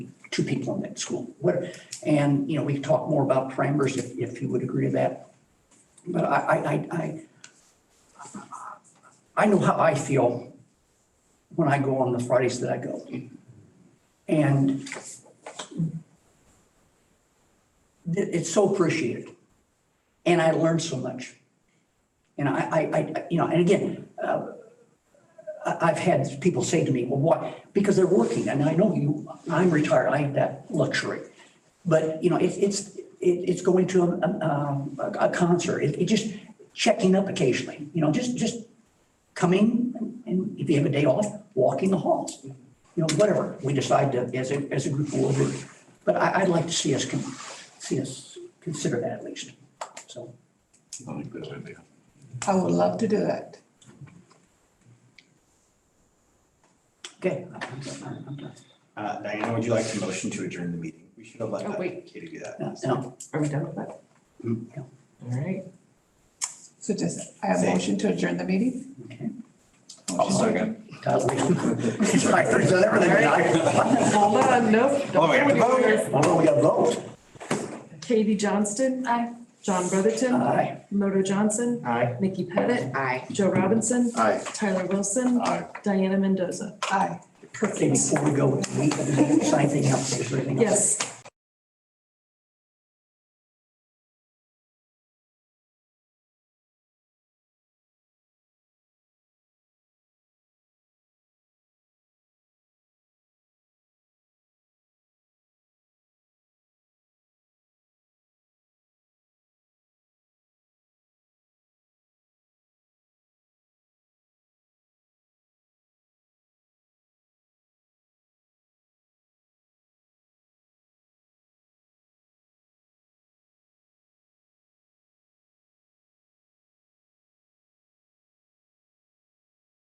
two people in that school. What, and, you know, we can talk more about parameters if, if you would agree to that. But I, I, I, I, I know how I feel when I go on the Fridays that I go. And it- it's so appreciated. And I learned so much. And I, I, I, you know, and again, uh, I, I've had people say to me, well, why? Because they're working, and I know you, I'm retired, I have that luxury. But, you know, it, it's, it, it's going to a, um, a, a concert, it, it just checking up occasionally, you know, just, just coming, and- and if you have a day off, walking the halls. You know, whatever, we decide to, as a, as a group, we'll do. it. But I, I'd like to see us, con- see us consider that at least, so. I like that idea. I would love to do that. Okay. I'm- I'm done. Uh, Diana, would you like to motion to adjourn the meeting? We should have let Oh, wait. Katie do that. No, no, Are we done with that? mm, no. All right. So just, I have a motion to adjourn the meeting? Okay. Motion to- Todd, we- He's my first on everything. tonight. Hold on, Uh, nope. don't Oh, we have to go anywhere. Although we got vote. Katie Johnston. Aye. John Brotherton. Aye. Moto Johnson. Aye. Nikki Pettit. Aye. Joe Robinson. Aye. Tyler Wilson. Aye. Diana Mendoza. Aye. Okay, before we go, we, we sign anything else, is there anything else? Yes,